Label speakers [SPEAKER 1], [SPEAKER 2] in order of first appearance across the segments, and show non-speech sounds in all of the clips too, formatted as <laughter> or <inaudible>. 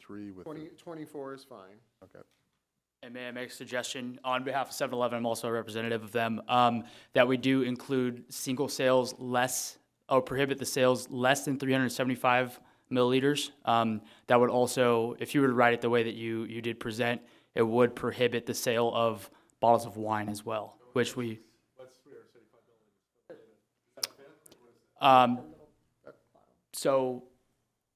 [SPEAKER 1] 23 with, the-
[SPEAKER 2] 20, 24 is fine.
[SPEAKER 1] okay.
[SPEAKER 3] And may I make a suggestion on behalf of 7-Eleven, I'm also a representative of them, um, that we do include single sales less, or prohibit the sales less than 375 milliliters. Um, that would also, if you were to write it the way that you, you did present, it would prohibit the sale of bottles of wine as well, which we. Um, so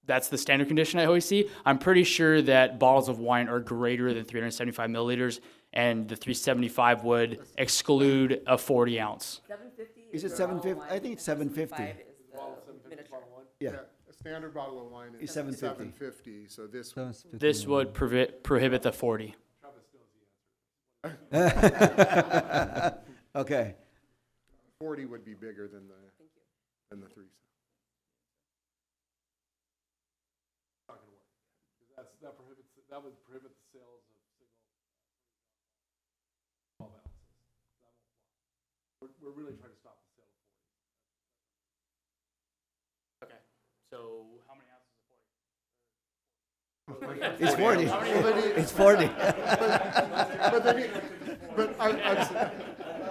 [SPEAKER 3] that's the standard condition I always see. I'm pretty sure that bottles of wine are greater than 375 milliliters, and the 375 would exclude a 40 ounce.
[SPEAKER 4] Seven fifty?
[SPEAKER 5] Is it 750? I think it's 750. Yeah.
[SPEAKER 2] A standard bottle of wine is
[SPEAKER 5] It's 750.
[SPEAKER 2] 750, so this,
[SPEAKER 3] This would provi- prohibit the 40.
[SPEAKER 5] Okay,
[SPEAKER 2] 40 would be bigger than the, than the 3.
[SPEAKER 3] Okay. So how many ounces?
[SPEAKER 5] it's 40. <laughs>
[SPEAKER 2] But it-
[SPEAKER 5] It's 40.
[SPEAKER 2] <laughs> But they need, but I, I,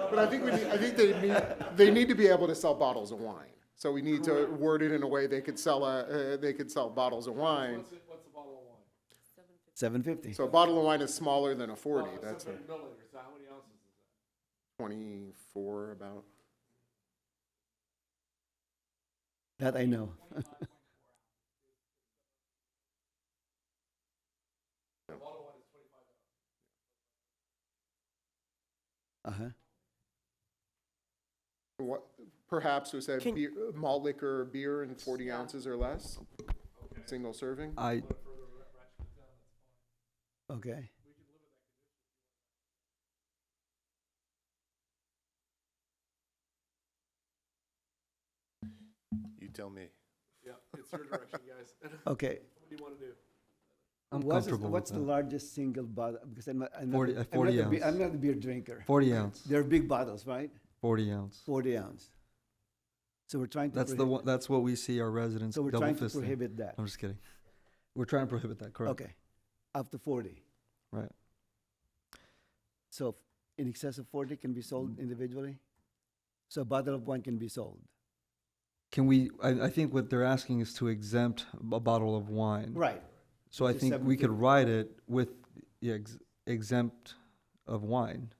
[SPEAKER 2] but I think we need, I think they need, they need to be able to sell bottles of wine. So we need to word it in a way they could sell a, uh, they could sell bottles of wine.
[SPEAKER 5] 750.
[SPEAKER 2] So a bottle of wine is smaller than a forty, that's a. Twenty-four about.
[SPEAKER 5] That I know. <laughs> Uh-huh.
[SPEAKER 2] What, perhaps we said beer, malt liquor, beer in forty ounces or less, single serving?
[SPEAKER 5] I. Okay.
[SPEAKER 1] You tell me.
[SPEAKER 5] Okay.
[SPEAKER 6] I'm
[SPEAKER 5] What's,
[SPEAKER 6] comfortable
[SPEAKER 5] what's
[SPEAKER 6] with
[SPEAKER 5] the
[SPEAKER 6] that.
[SPEAKER 5] largest single bottle? Because I'm not, I'm not,
[SPEAKER 6] 40
[SPEAKER 5] a-
[SPEAKER 6] uh,
[SPEAKER 5] I'm not
[SPEAKER 6] 40
[SPEAKER 5] a be- I'm
[SPEAKER 6] ounce.
[SPEAKER 5] not a beer drinker.
[SPEAKER 6] 40 ounce.
[SPEAKER 5] They're big bottles, right?
[SPEAKER 6] 40 ounce.
[SPEAKER 5] 40 ounce. So we're trying to.
[SPEAKER 6] That's the
[SPEAKER 5] prohibit-
[SPEAKER 6] one, that's what we see our residents
[SPEAKER 5] So we're
[SPEAKER 6] double
[SPEAKER 5] trying to
[SPEAKER 6] fisting.
[SPEAKER 5] prohibit that.
[SPEAKER 6] I'm just kidding. We're trying to prohibit that, correct?
[SPEAKER 5] Okay. Up to 40.
[SPEAKER 6] Right.
[SPEAKER 5] So f- in excess of 40 can be sold individually? So a bottle of wine can be sold?
[SPEAKER 6] Can we, I, I think what they're asking is to exempt a bottle of wine.
[SPEAKER 5] Right.
[SPEAKER 6] So I
[SPEAKER 5] Which is
[SPEAKER 6] think we could
[SPEAKER 5] 750.
[SPEAKER 6] write it with yeah, ex- exempt of wine.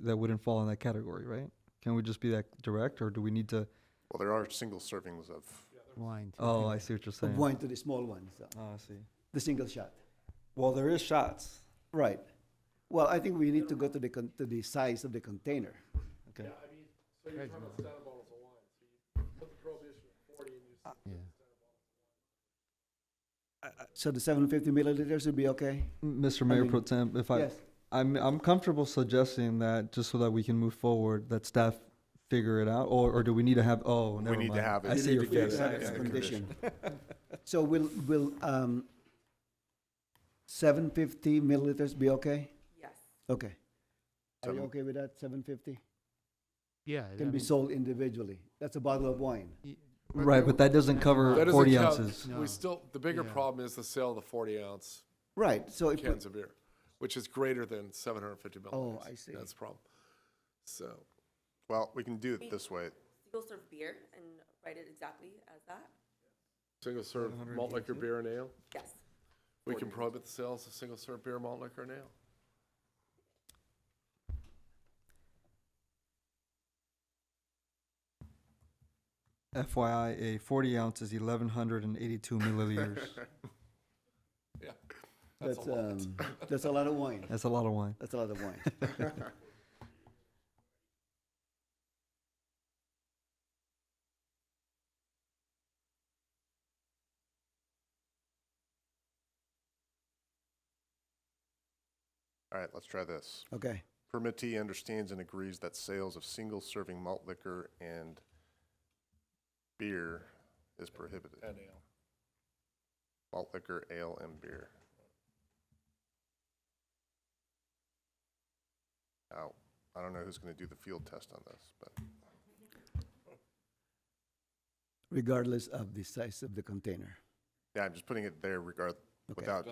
[SPEAKER 6] That wouldn't fall in that category, right? Can we just be that direct or do we need to?
[SPEAKER 1] Well, there are single servings of,
[SPEAKER 7] Wine.
[SPEAKER 6] Oh, I see what you're
[SPEAKER 5] Of
[SPEAKER 6] saying.
[SPEAKER 5] wine to the small ones, so
[SPEAKER 6] Oh, I see.
[SPEAKER 5] the single shot.
[SPEAKER 6] Well, there is shots.
[SPEAKER 5] Right. Well, I think we need to go to the, con- to the size of the container.
[SPEAKER 6] Okay.
[SPEAKER 7] Yeah.
[SPEAKER 5] So the 750 milliliters would be okay?
[SPEAKER 6] Mr. Mayor
[SPEAKER 5] mean,
[SPEAKER 6] Pro Tem, if I,
[SPEAKER 5] Yes.
[SPEAKER 6] I'm, I'm comfortable suggesting that just so that we can move forward, that staff figure it out, or, or do we need to have, oh, never
[SPEAKER 1] we need to
[SPEAKER 6] mind.
[SPEAKER 1] have it.
[SPEAKER 6] I see your
[SPEAKER 5] We
[SPEAKER 6] face.
[SPEAKER 5] have
[SPEAKER 1] Yeah,
[SPEAKER 5] this
[SPEAKER 1] yeah,
[SPEAKER 5] condition. So will, will, um, 750 milliliters be okay?
[SPEAKER 4] Yes.
[SPEAKER 5] Okay. Are you
[SPEAKER 1] Seven-
[SPEAKER 5] okay with that, 750?
[SPEAKER 7] Yeah. I
[SPEAKER 5] Can be
[SPEAKER 7] mean,
[SPEAKER 5] sold individually. That's a bottle of wine.
[SPEAKER 6] Right, but that doesn't
[SPEAKER 8] That
[SPEAKER 6] cover
[SPEAKER 8] doesn't
[SPEAKER 6] forty
[SPEAKER 8] count.
[SPEAKER 6] ounces.
[SPEAKER 7] No.
[SPEAKER 8] We still, the bigger
[SPEAKER 7] Yeah.
[SPEAKER 8] problem is the sale of the forty ounce
[SPEAKER 5] Right, so if, we-
[SPEAKER 8] cans of beer, which is greater than seven hundred and fifty milliliters.
[SPEAKER 5] I see.
[SPEAKER 8] That's the problem. So,
[SPEAKER 1] Well, we can do it this way.
[SPEAKER 4] Single serve beer and write it exactly as that?
[SPEAKER 8] single serve malt liquor, beer and ale,
[SPEAKER 4] Yes.
[SPEAKER 8] we can prohibit the sales of single serve beer, malt liquor and ale.
[SPEAKER 6] FYI, a forty ounce is eleven hundred and
[SPEAKER 1] <laughs>
[SPEAKER 6] eighty-two milliliters.
[SPEAKER 8] Yeah. That's
[SPEAKER 5] that's,
[SPEAKER 8] a lot.
[SPEAKER 5] um, <laughs> that's a lot of wine.
[SPEAKER 6] That's a lot of wine.
[SPEAKER 5] That's a lot of wine.
[SPEAKER 1] All right, let's try this.
[SPEAKER 5] Okay,
[SPEAKER 1] Permittee understands and agrees that sales of single serving malt liquor and beer is prohibited.
[SPEAKER 8] And ale.
[SPEAKER 1] Malt liquor, ale, and beer. Now, I don't know who's gonna do the field test on this, but
[SPEAKER 5] regardless of the size of the container.
[SPEAKER 1] yeah, I'm just putting it there regard,
[SPEAKER 5] Okay.
[SPEAKER 1] without